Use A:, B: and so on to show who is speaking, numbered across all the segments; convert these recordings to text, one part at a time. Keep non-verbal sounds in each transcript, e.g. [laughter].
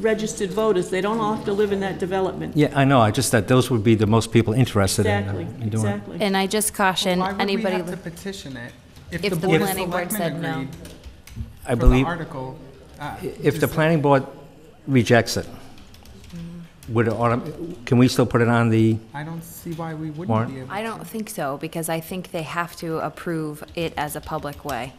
A: registered voters. They don't all have to live in that development.
B: Yeah, I know, I just, that those would be the most people interested in uh,
A: Exactly,
B: in doing it.
A: exactly.
C: And I just caution anybody,
D: Why would we have to petition it?
C: If the
D: Board of
C: planning board said
D: Selectmen
C: no.
D: agreed
B: I
D: For the
B: believe,
D: article. uh,
B: if the
D: is-
B: planning board rejects it,
A: Mm-hmm.
B: would it, autom- can we still put it on the,
D: I don't see why we wouldn't
B: Warren?
D: be able.
C: I don't think so, because I think they have to approve it as a public way.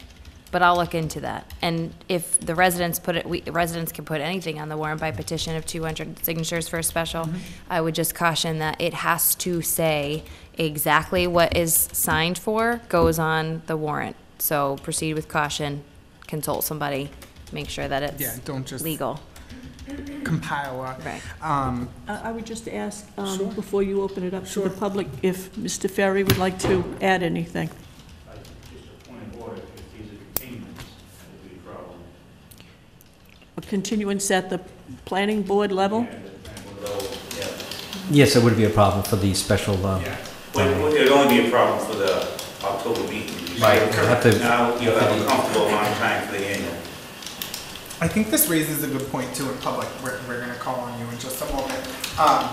C: But I'll look into that. And if the residents put it, we, residents can put anything on the warrant by petition of two hundred signatures for a special.
D: Mm-hmm.
C: I would just caution that it has to say exactly what is signed for goes on the warrant. So proceed with caution, consult somebody, make sure that
D: Yeah,
C: it's
D: don't just
C: legal.
D: compile a.
C: Right.
D: Um,
A: I I would just ask, um,
D: Sure.
A: before you open it up to
D: Sure.
A: the public, if Mr. Ferry would like to add anything.
E: Point of order, if these are containments, that would be a problem.
A: A continuance at the planning board level?
B: yes, it would be a problem for the special, uh,
E: Well, it would- it would only be a problem for the October meeting.
B: Right, we'll have to-
E: Now, you'll have a comfortable amount of time for the annual.
D: I think this raises a good point too in public. We're, we're going to call on you in just a moment. Um,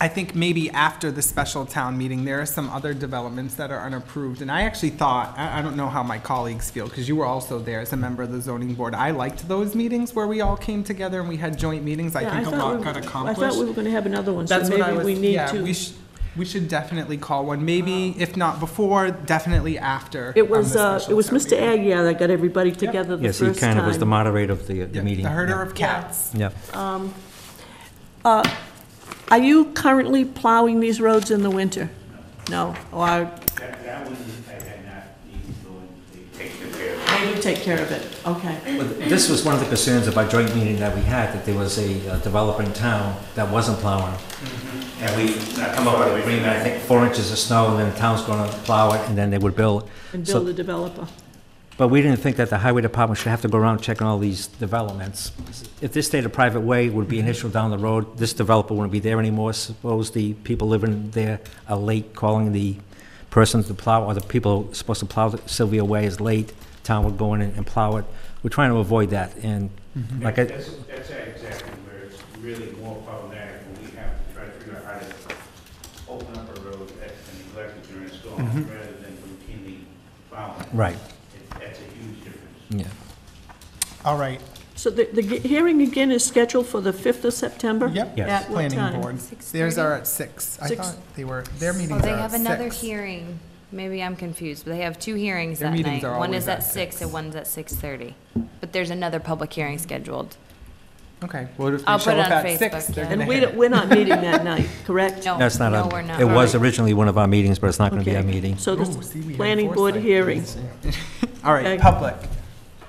D: I think maybe after the special town meeting, there are some other developments that are unapproved. And I actually thought, I, I don't know how my colleagues feel, because you were also there as a member of the zoning board. I liked those meetings where we all came together and we had joint meetings. I
A: Yeah,
D: think a
A: thought
D: lot
A: we-
D: got accomplished.
A: I thought we were going to have another one, so
D: That's what I
A: maybe
D: was,
A: we need
D: yeah, we,
A: to. Oh.
D: sh- we should definitely call one, maybe if not before, definitely after.
A: It
D: on
A: was,
D: the
A: uh,
D: special
A: it was
D: town
A: Mr.
D: meeting.
A: Aguirre that got everybody together the
B: yes,
A: first
B: he
A: time.
B: kind of was the moderator of the, the
D: Yeah,
B: meeting.
D: The herder
B: Yeah.
D: of cats.
B: Yeah,
A: Are you currently plowing these roads in the winter? No, or
E: That, that one, I had not even going, they take the care of.
A: they do take care of it? Okay.
B: Well, This was one of the concerns of our joint meeting that we had, that there was a uh, developer in town that wasn't plowing.
E: And we not
B: Come up with an agreement, I think, four inches of snow, and then the town's gonna plow it, and then they would bill
A: And
B: it.
A: build
B: So,
A: the developer.
B: but we didn't think that the highway department should have to go around checking all these developments. If this stayed a private way, it would be an issue down the road, this developer wouldn't be there anymore, suppose the people living there are late calling the person to plow, or the people supposed to plow Sylvia Way is late, town would go in and and plow it. We're trying to avoid that, and like I,
E: That's, that's exactly where it's really more problematic, when we have to try to figure out how to open up a road that's been neglected during a storm, rather than routinely plowing.
B: Mm-hmm. right,
E: It- That's a huge difference.
B: yeah.
D: All right,
A: So the, the ge- hearing again is scheduled for the 5th of September?
D: yep.
B: Yes.
A: At what time?
D: Planning board. Theirs
C: 6:30?
D: are at six. I
A: Six. Oh,
D: thought they were, their meetings are
C: Well,
D: at
C: they have another
D: six.
C: hearing. Maybe I'm confused, but they have two hearings
D: Their
C: that
D: meetings
C: night.
D: are
C: One
D: always
C: is at
D: at
C: six
D: six.
C: and one's at six thirty. But there's another public hearing scheduled.
D: Okay, well, if
C: I'll
D: they
C: put
D: show
C: it
D: up
C: on
D: at six,
C: Facebook,
D: they're
C: yeah.
D: gonna
A: And we,
D: hit
A: don't-
D: it.
A: we're not meeting that night, correct?
C: No,
B: That's not,
C: no,
B: on-
C: we're not.
B: it was
C: Right.
B: originally one of our meetings, but it's not gonna be our
A: Okay.
B: meeting.
A: So
D: Ooh, see, we
A: the
D: had
A: planning board
D: foresight.
A: hearing.
D: [laughs] All
A: Okay.
D: right, public.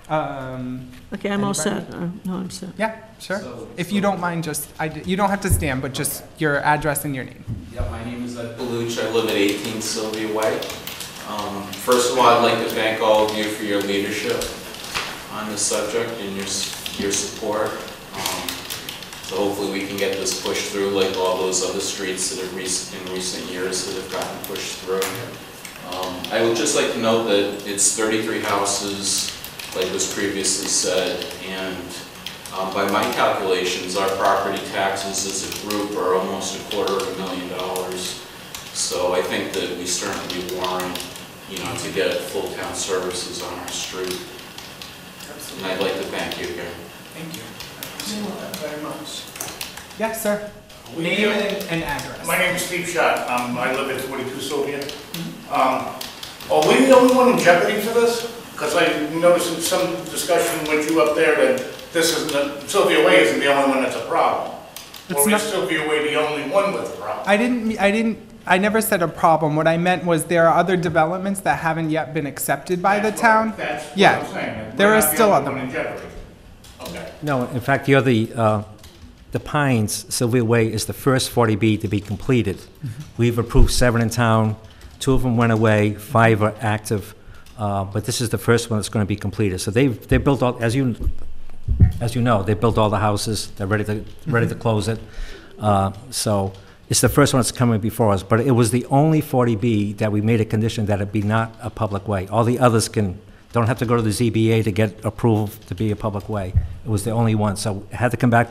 D: Um,
A: Okay, I'm all
D: Anybody?
A: set. Uh, No, I'm set.
D: yeah, sure. If you don't mind, just, I, d- you don't have to stand, but just your address and your name.
F: Yeah, my name is uh, Ed Baluch. I live at 18 Sylvia Way. Um, First of all, I'd like to thank all of you for your leadership on this subject and your, s- your support. Um, So hopefully we can get this pushed through like all those other streets that have rec- in recent years that have gotten pushed through. Um, I would just like to note that it's 33 houses, like was previously said, and um, By my calculations, our property taxes as a group are almost a quarter of a million dollars. So I think that we certainly warrant, you know, to get full town services on our street. And I'd like to thank you again.
E: Thank you. I appreciate that very much.
D: Yes, sir.
E: We-
D: Name and and address.
E: My name is Steve Schott. Um, I live at 42 Sylvia. Um, Are we the only one in jeopardy for this? Because I noticed in some discussion with you up there that this isn't, Sylvia Way isn't the only one that's a problem.
D: It's
E: Or
D: not-
E: is Sylvia Way the only one with a problem?
D: I didn't, me- I didn't, I never said a problem. What I meant was there are other developments that haven't yet been accepted by the
E: That's what-
D: town.
E: That's what
D: Yeah,
E: I'm saying.
D: there
E: We're
D: are
E: not the
D: still
E: only
D: other-
E: one in jeopardy. Okay.
B: No, in fact, the other, uh, the Pines, Sylvia Way is the first 40B to be completed. We've approved seven in town, two of them went away, five are active, uh, but this is the first one that's going to be completed. So they've, they built all, as you, as you know, they built all the houses, they're ready to, ready to close it. Uh, So it's the first one that's coming before us, but it was the only 40B that we made a condition that it be not a public way. All the others can, don't have to go to the ZBA to get approval to be a public way. It was the only one, so it had to come back